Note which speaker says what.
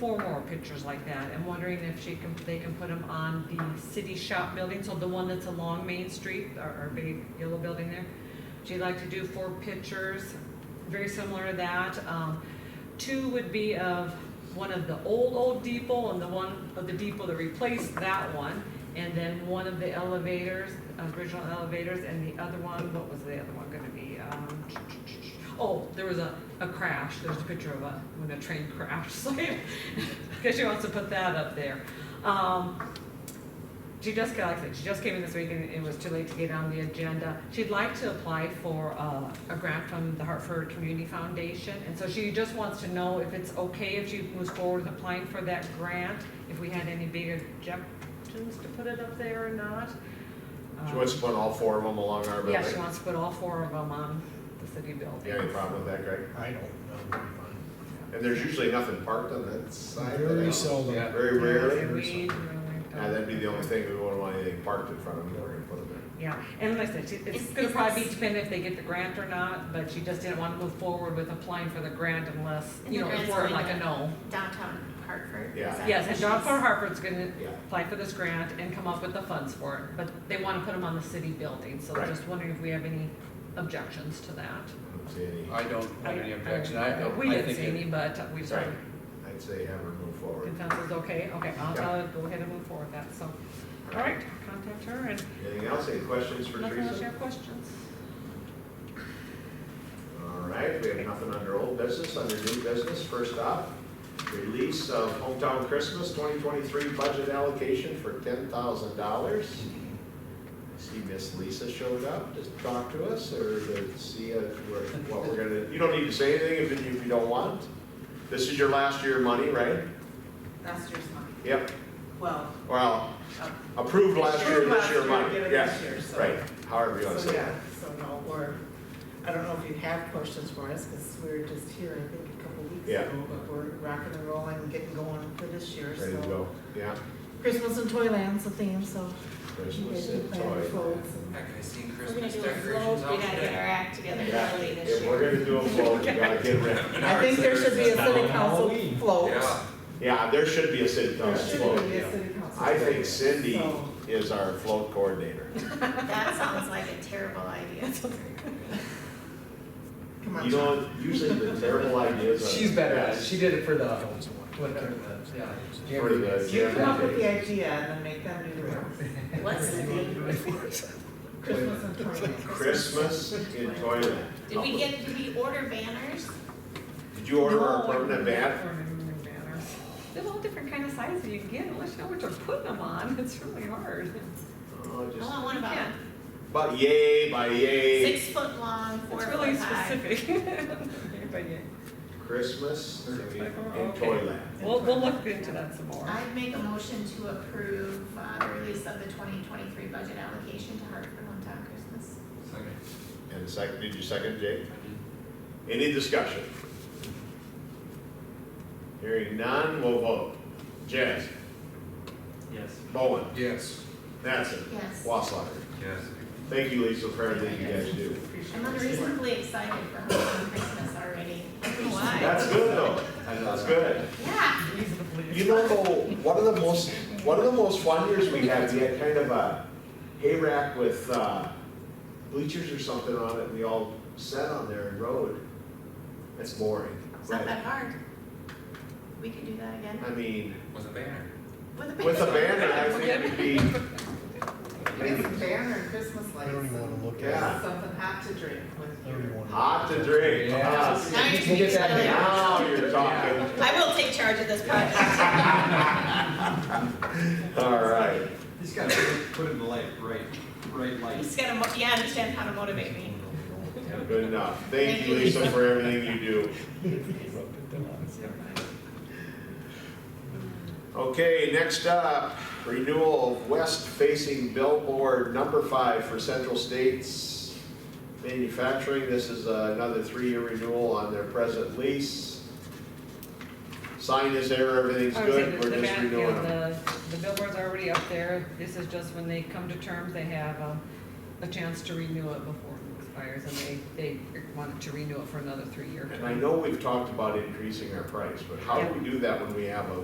Speaker 1: four more pictures like that. I'm wondering if she can, they can put them on the city shop building, so the one that's along Main Street, our, our big yellow building there. She'd like to do four pictures, very similar to that. Um, two would be of one of the old, old depot and the one of the depot that replaced that one. And then one of the elevators, original elevators, and the other one, what was the other one gonna be? Um, Oh, there was a, a crash, there's a picture of a, when a train crashed, so, because she wants to put that up there. Um, she just got, like I said, she just came in this week and it was too late to get on the agenda. She'd like to apply for uh, a grant from the Hartford Community Foundation. And so she just wants to know if it's okay if she moves forward with applying for that grant, if we had any big objections to put it up there or not.
Speaker 2: She wants to put all four of them along our
Speaker 1: Um,
Speaker 2: building.
Speaker 1: Yeah, she wants to put all four of them on the city building.
Speaker 2: You have any problem with that, Greg?
Speaker 3: I don't, that would be fine.
Speaker 2: And there's usually nothing parked on that side of the
Speaker 3: Very
Speaker 2: house.
Speaker 3: seldom.
Speaker 2: Yeah, Very
Speaker 1: Yeah,
Speaker 2: rarely.
Speaker 1: we-
Speaker 2: Yeah, that'd be the only thing, we wouldn't want anything parked in front of them, we're gonna put them
Speaker 1: Yeah, and like I said, she- it's
Speaker 4: Is-
Speaker 1: gonna
Speaker 4: is
Speaker 1: probably be
Speaker 4: this-
Speaker 1: dependent if they get the grant or not, but she just didn't wanna move forward with applying for the grant unless,
Speaker 4: And
Speaker 1: you
Speaker 4: the
Speaker 1: know, if
Speaker 4: grant's
Speaker 1: we're
Speaker 4: going
Speaker 1: like a
Speaker 4: to-
Speaker 1: no.
Speaker 4: downtown Hartford. is
Speaker 2: Yeah.
Speaker 4: that
Speaker 1: Yes,
Speaker 4: what
Speaker 1: and John
Speaker 4: she's-
Speaker 1: Far Hartford's gonna
Speaker 2: Yeah.
Speaker 1: apply for this grant and come up with the funds for it, but they wanna put them on the city building, so
Speaker 2: Right.
Speaker 1: just wondering if we have any objections to that.
Speaker 2: in. I don't see any,
Speaker 5: I don't have any objection, I, I I think.
Speaker 1: We didn't see
Speaker 5: it-
Speaker 1: any, but we
Speaker 2: Right.
Speaker 1: started.
Speaker 2: I'd say have her move forward.
Speaker 1: Consensus, okay, okay, I'll,
Speaker 2: Yeah.
Speaker 1: I'll go ahead and move forward with that, so, all right, contact her and
Speaker 2: Anything else, any questions for
Speaker 1: nothing else, you
Speaker 2: Teresa?
Speaker 1: have questions?
Speaker 2: All right, we have nothing under old business, under new business, first up, release of hometown Christmas twenty twenty-three budget allocation for ten thousand dollars. See Miss Lisa showed up to talk to us, or to see if we're- what we're gonna, you don't need to say anything if you, if you don't want. This is your last year of money, right?
Speaker 6: Last year's money,
Speaker 2: Yep,
Speaker 6: well,
Speaker 2: well,
Speaker 6: uh,
Speaker 2: approved last year,
Speaker 6: Approved
Speaker 2: this
Speaker 6: last
Speaker 2: year of
Speaker 6: year,
Speaker 2: money,
Speaker 6: given
Speaker 2: yeah,
Speaker 6: this year, so-
Speaker 2: right, however you wanna
Speaker 6: so
Speaker 2: say
Speaker 6: yeah,
Speaker 2: that.
Speaker 6: so no, we're, I don't know if you have questions for us, because we were just here, I think, a couple weeks
Speaker 2: Yeah.
Speaker 6: ago, but we're rocking and rolling, and getting going for this year,
Speaker 2: Ready to
Speaker 6: so.
Speaker 2: go, yeah,
Speaker 6: Christmas in Toyland's the theme, so you
Speaker 2: Christmas
Speaker 6: guys can
Speaker 2: and
Speaker 6: plan
Speaker 2: toy.
Speaker 6: your folks. and-
Speaker 5: Heck, I seen
Speaker 4: We're gonna
Speaker 5: Christmas
Speaker 4: do a float,
Speaker 5: decorations
Speaker 4: we gotta
Speaker 5: out
Speaker 4: get our
Speaker 5: today.
Speaker 4: act together
Speaker 2: Yeah.
Speaker 4: early this
Speaker 2: If
Speaker 4: year.
Speaker 2: we're gonna do a float, we gotta get ready.
Speaker 6: I think there should be a city council
Speaker 3: Halloween.
Speaker 6: float.
Speaker 5: Yeah,
Speaker 2: Yeah, there should be a city
Speaker 6: There
Speaker 2: council
Speaker 6: should
Speaker 2: float.
Speaker 6: be a city council.
Speaker 2: I think
Speaker 6: float.
Speaker 2: Cindy
Speaker 6: So-
Speaker 2: is our float coordinator.
Speaker 4: That sounds like a terrible idea.
Speaker 6: Come on,
Speaker 2: You know, usually the terrible ideas are.
Speaker 7: She's better at it.
Speaker 2: best.
Speaker 7: She did it for the, whatever the, yeah.
Speaker 2: For the-
Speaker 6: you come up with the idea and then make them do the work.
Speaker 4: What's the name?
Speaker 6: Christmas in Toyland.
Speaker 2: Christmas in Toyland.
Speaker 4: Did we get, did we order banners?
Speaker 2: Did you order our
Speaker 1: No, I
Speaker 2: permanent
Speaker 1: didn't
Speaker 2: bat?
Speaker 1: order permanent banners. There's all different kind of sizes you can get, unless you know what you're putting them on, it's really hard.
Speaker 2: Oh,
Speaker 4: I
Speaker 2: just,
Speaker 4: want one about
Speaker 1: Yeah.
Speaker 2: but yay, by yay,
Speaker 4: six foot long, four
Speaker 1: It's
Speaker 4: foot
Speaker 1: really
Speaker 4: high.
Speaker 1: specific. But yeah.
Speaker 2: Christmas in in
Speaker 1: Okay.
Speaker 2: Toyland.
Speaker 1: We'll, we'll look into that some more.
Speaker 4: I'd make a motion to approve uh, the release of the twenty twenty-three budget allocation to Hartford Hometown Christmas.
Speaker 5: second.
Speaker 2: And second, did you second, Jake?
Speaker 5: I did.
Speaker 2: Any discussion? Hearing none, we'll vote. Jazz? Yes. Bowen?
Speaker 5: Yes.
Speaker 2: Mattson?
Speaker 4: Yes.
Speaker 2: Waslander?
Speaker 5: Yes.
Speaker 2: Thank you, Lisa, for everything you guys do.
Speaker 4: I'm unreasonably excited for Hometown Christmas already. I don't know why.
Speaker 2: That's good though. That's good.
Speaker 4: Yeah,
Speaker 2: You know, though, one of the most, one of the most fun years we had, we had kind of a hay rack with, uh, bleachers or something on it, and we all sat on there and rode. That's boring.
Speaker 4: it's not
Speaker 2: But,
Speaker 4: that hard. We could do that again
Speaker 2: I mean,
Speaker 5: Was a banner.
Speaker 4: with a
Speaker 2: with a banner, I think it'd be,
Speaker 6: It's a banner, Christmas
Speaker 3: I
Speaker 6: lights.
Speaker 3: don't even wanna look at
Speaker 2: Yeah.
Speaker 3: it.
Speaker 6: Something hot to drink with
Speaker 3: I don't even
Speaker 6: your.
Speaker 3: wanna.
Speaker 2: hot to drink. Ah,
Speaker 4: Now you're
Speaker 7: Can you get that
Speaker 2: Now
Speaker 4: speaking.
Speaker 2: you're talking.
Speaker 4: I will take charge of this project.
Speaker 2: All right.
Speaker 8: He's got to put it in the light, right, right
Speaker 4: You
Speaker 8: light.
Speaker 4: just gotta, mo- yeah, understand how to motivate me.
Speaker 2: Good enough. Thank you, Lisa, for everything you do. Okay, next up, renewal of west-facing billboard number five for Central States Manufacturing. This is another three-year renewal on their present lease. Sign Oh, is there, everything's
Speaker 1: I would say
Speaker 2: good,
Speaker 1: that
Speaker 2: we're
Speaker 1: the
Speaker 2: just
Speaker 1: back, you know,
Speaker 2: renewing them.
Speaker 1: the, the billboard's already up there, this is just when they come to terms, they have a, a chance to renew it before it expires. expires and they, they wanted to renew it for another three-year term.
Speaker 2: And I know we've talked about increasing our price, but how do we do that when we have a